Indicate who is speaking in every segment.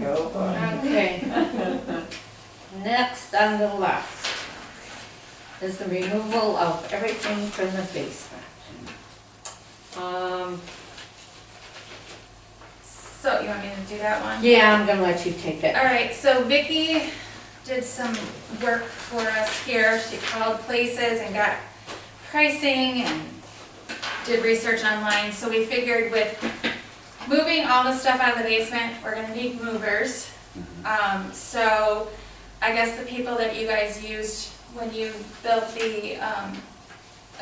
Speaker 1: go on.
Speaker 2: Okay. Next on the list is the removal of everything from the basement. Um,
Speaker 3: So, you want me to do that one?
Speaker 2: yeah, I'm gonna let you take it.
Speaker 3: All right, so Vicky did some work for us here. She called places and got pricing and did research online. So we figured with moving all the stuff out of the basement, we're gonna need movers. Um, so I guess the people that you guys used when you built the, um,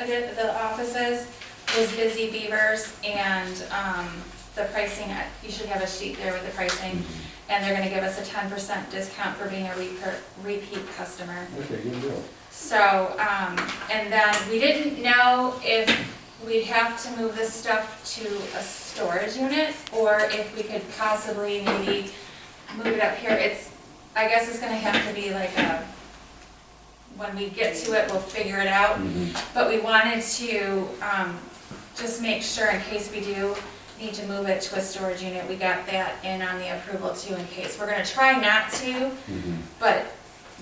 Speaker 3: adi- the offices was Busy Beavers and, um, the pricing, I- you should have a sheet there with the pricing. And they're gonna give us a ten percent discount for being a repeat, repeat customer.
Speaker 1: Okay, good deal.
Speaker 3: So, um, and then we didn't know if we'd have to move this stuff to a storage unit or if we could possibly maybe move it up here. It's, I guess it's gonna have to be like a, when we get to it, we'll figure it out. But we wanted to, um, just make sure in case we do need to move it to a storage unit, we got that in on the approval too in case. We're gonna try not to, but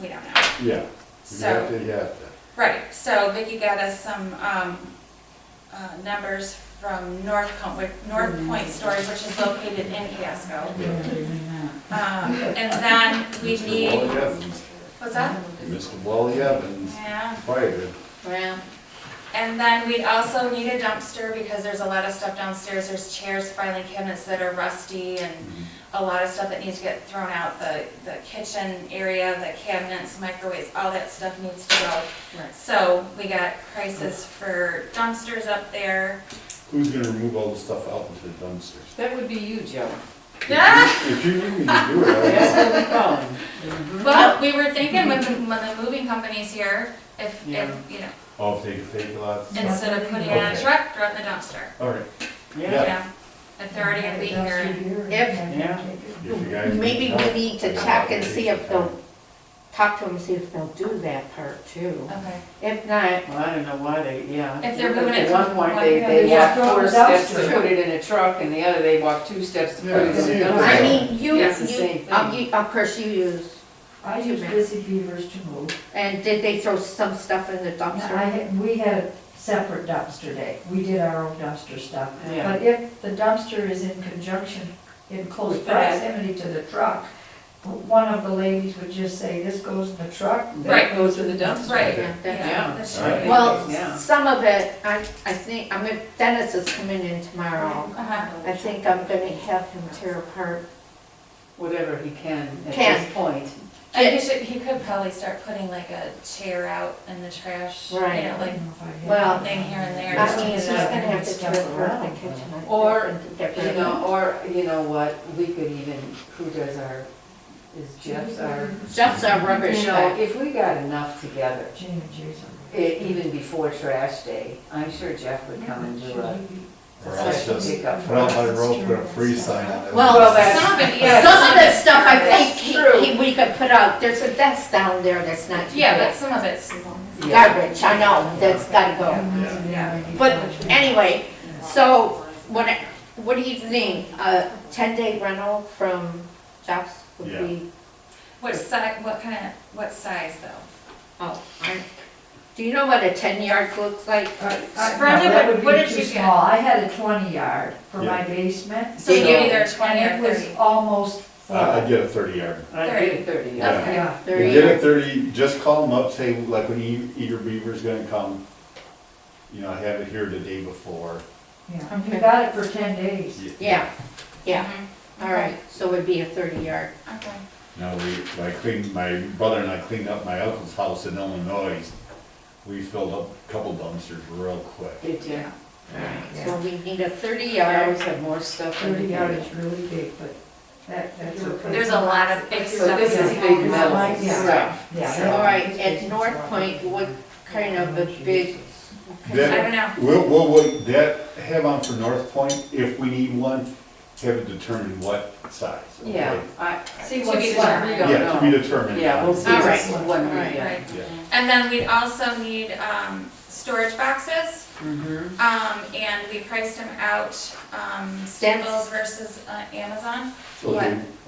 Speaker 3: we don't know.
Speaker 1: Yeah, you have
Speaker 3: So,
Speaker 1: to, you have to.
Speaker 3: right, so Vicky got us some, um, uh, numbers from North Com, with North Point Storage, which is located in Casco. Um, and then we
Speaker 1: Mr.
Speaker 3: need,
Speaker 1: Wally Evans,
Speaker 3: what's that?
Speaker 1: Mr. Wally Evans,
Speaker 3: Yeah,
Speaker 1: fired.
Speaker 2: Well,
Speaker 3: and then we'd also need a dumpster because there's a lot of stuff downstairs, there's chairs, filing cabinets that are rusty and a lot of stuff that needs to get thrown out, the, the kitchen area, the cabinets, microwaves, all that stuff needs to go.
Speaker 2: right.
Speaker 3: So we got prices for dumpsters up there.
Speaker 1: Who's gonna remove all the stuff out into the dumpsters?
Speaker 4: That would be you, Joe.
Speaker 1: If you- If you need me to do it, I'll.
Speaker 4: That's what we call him.
Speaker 3: Well, we were thinking when the, when the moving company's here, if,
Speaker 4: Yeah.
Speaker 3: if, you know,
Speaker 1: I'll take, take a lot.
Speaker 3: instead of putting it in a
Speaker 1: Okay.
Speaker 3: truck, throw it in the dumpster.
Speaker 1: All right,
Speaker 3: You
Speaker 4: Yeah,
Speaker 1: Yeah.
Speaker 3: know, if they're already gonna be here.
Speaker 2: If,
Speaker 4: yeah.
Speaker 1: if you guys.
Speaker 2: maybe we need to check and see if they'll, talk to them, see if they'll do that part too.
Speaker 3: Okay.
Speaker 2: If not,
Speaker 4: Well, I don't know why they, yeah.
Speaker 3: If they're moving it
Speaker 4: At one
Speaker 3: from
Speaker 4: point,
Speaker 3: one
Speaker 4: they,
Speaker 3: guy
Speaker 4: they
Speaker 3: to
Speaker 4: walked
Speaker 5: the
Speaker 4: four
Speaker 5: dumpster.
Speaker 4: steps to put it in a truck, and the other, they walked two steps to put it in a
Speaker 1: Yeah.
Speaker 2: I
Speaker 4: dumpster.
Speaker 2: mean, you,
Speaker 4: It's the same
Speaker 2: you,
Speaker 4: thing.
Speaker 2: um, you- of course you use,
Speaker 5: I use Busy Beavers to move.
Speaker 2: and did they throw some stuff in the
Speaker 5: And I,
Speaker 2: dumpster?
Speaker 5: had- we had a separate dumpster day. We did our own dumpster stuff.
Speaker 4: Yeah.
Speaker 5: But if the dumpster is in conjunction, in close proximity to the truck, one of the ladies would just say, this goes in the truck. that
Speaker 3: Right.
Speaker 4: Goes to the dumpster.
Speaker 3: Right.
Speaker 2: Yeah, that-
Speaker 4: Yeah.
Speaker 3: That's
Speaker 1: All right.
Speaker 3: right.
Speaker 2: Well,
Speaker 4: Yeah.
Speaker 2: some of it, I, I think, I'm gonna, Dennis is coming in tomorrow.
Speaker 3: Uh-huh.
Speaker 2: I think I'm gonna have him tear apart.
Speaker 4: Whatever he can at
Speaker 2: Can.
Speaker 4: this point.
Speaker 3: And he should, he could probably start putting like a chair out in the trash, you
Speaker 2: Right.
Speaker 3: know,
Speaker 5: I
Speaker 3: like
Speaker 5: don't know if I had
Speaker 2: Well,
Speaker 5: that.
Speaker 3: thing here and there.
Speaker 2: I mean, uh, he's gonna
Speaker 5: Just clean
Speaker 2: have to tear
Speaker 5: stuff
Speaker 2: apart the
Speaker 5: around.
Speaker 2: kitchen. I
Speaker 4: Or,
Speaker 2: think, and get rid
Speaker 4: You
Speaker 2: of
Speaker 4: know, or, you know what, we could even, who does our, is Jeff's our,
Speaker 2: it. Jeff's a rubbish
Speaker 4: you know,
Speaker 2: guy.
Speaker 4: if we got enough together,
Speaker 5: Jane and Jason.
Speaker 4: e- even before trash day, I'm sure Jeff would come and do a
Speaker 1: Or else
Speaker 4: special
Speaker 1: just,
Speaker 4: pickup.
Speaker 1: put out my rope, put a free sign on it.
Speaker 2: Well,
Speaker 4: that's-
Speaker 3: Some of it, yeah.
Speaker 2: Some of the stuff I think
Speaker 4: That's true.
Speaker 2: he, he, we could put out, there's a desk down there that's not. too
Speaker 3: Yeah, but
Speaker 2: bad.
Speaker 3: some of it's,
Speaker 2: Garbage, I know, that's gotta go. But anyway, so what, I- what do you think, a ten-day rental from Jeff's would
Speaker 1: Yeah.
Speaker 2: be?
Speaker 3: what size, what kind of, what size though?
Speaker 2: Oh, I, do you know what a ten yard looks like?
Speaker 3: Brenda, what-
Speaker 5: that would
Speaker 3: what
Speaker 5: be
Speaker 3: did
Speaker 5: too
Speaker 3: you get?
Speaker 5: small. I had a twenty yard for my basement.
Speaker 3: So you
Speaker 2: So-
Speaker 3: get either twenty or
Speaker 5: And it was
Speaker 3: thirty.
Speaker 5: almost full.
Speaker 1: I, I get a thirty yard.
Speaker 4: I did it thirty, yeah.
Speaker 3: Okay.
Speaker 5: Yeah.
Speaker 1: You
Speaker 2: Thirty
Speaker 1: get a
Speaker 2: yard?
Speaker 1: thirty, just call them up, say, like, when E- Eater Beaver's gonna come, you know, I have it here the day before.
Speaker 5: Yeah, you
Speaker 2: Okay.
Speaker 5: got it for ten days.
Speaker 2: Yeah, yeah,
Speaker 3: Mhm.
Speaker 2: all right, so it'd be a thirty yard.
Speaker 3: Okay.
Speaker 1: Now, we, I cleaned, my brother and I cleaned up my uncle's house in Illinois. We filled up a couple dumpsters real quick.
Speaker 4: Did you?
Speaker 2: So we need a thirty
Speaker 4: I
Speaker 2: yard.
Speaker 4: always have more stuff in
Speaker 5: Thirty
Speaker 4: the
Speaker 5: yard is really big, but that, that's okay.
Speaker 3: There's a lot of big
Speaker 4: So
Speaker 3: stuff.
Speaker 4: this is
Speaker 3: going
Speaker 4: big
Speaker 3: on.
Speaker 4: metal
Speaker 5: Yeah.
Speaker 4: stuff.
Speaker 5: Yeah.
Speaker 2: All right, at North Point, what kind of a big?
Speaker 3: I
Speaker 1: That,
Speaker 3: don't know.
Speaker 1: we'll, we'll, wait- that, have on for North Point, if we need one, have it determined what size. okay?
Speaker 4: Yeah, I, see
Speaker 3: To
Speaker 4: what's
Speaker 3: be
Speaker 4: what, we
Speaker 3: determined.
Speaker 1: Yeah, to be
Speaker 4: don't know.
Speaker 1: determined.
Speaker 4: Yeah, we'll see
Speaker 2: All right.
Speaker 4: what's what we
Speaker 2: All
Speaker 4: get.
Speaker 3: Right.
Speaker 1: Yeah.
Speaker 3: And then we'd also need, um, storage boxes,
Speaker 4: Mhm.
Speaker 3: um, and we priced them out, um, Staples versus uh, Amazon.
Speaker 1: So they-